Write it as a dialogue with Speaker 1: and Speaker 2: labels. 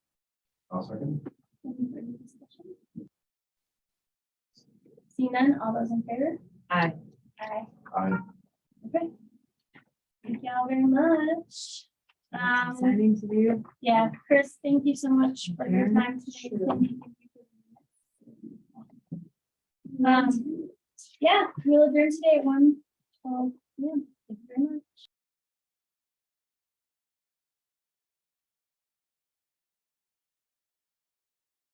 Speaker 1: I'll second.
Speaker 2: Any further discussion? Seeing none, all those in favor?
Speaker 3: Aye.
Speaker 2: Aye.
Speaker 1: Aye.
Speaker 2: Okay. Thank y'all very much. Um,
Speaker 3: Exciting to do.
Speaker 2: Yeah, Chris, thank you so much for your
Speaker 3: Very
Speaker 2: time today. Um, yeah, we'll adjourn today at one twelve. Yeah, thank you very much.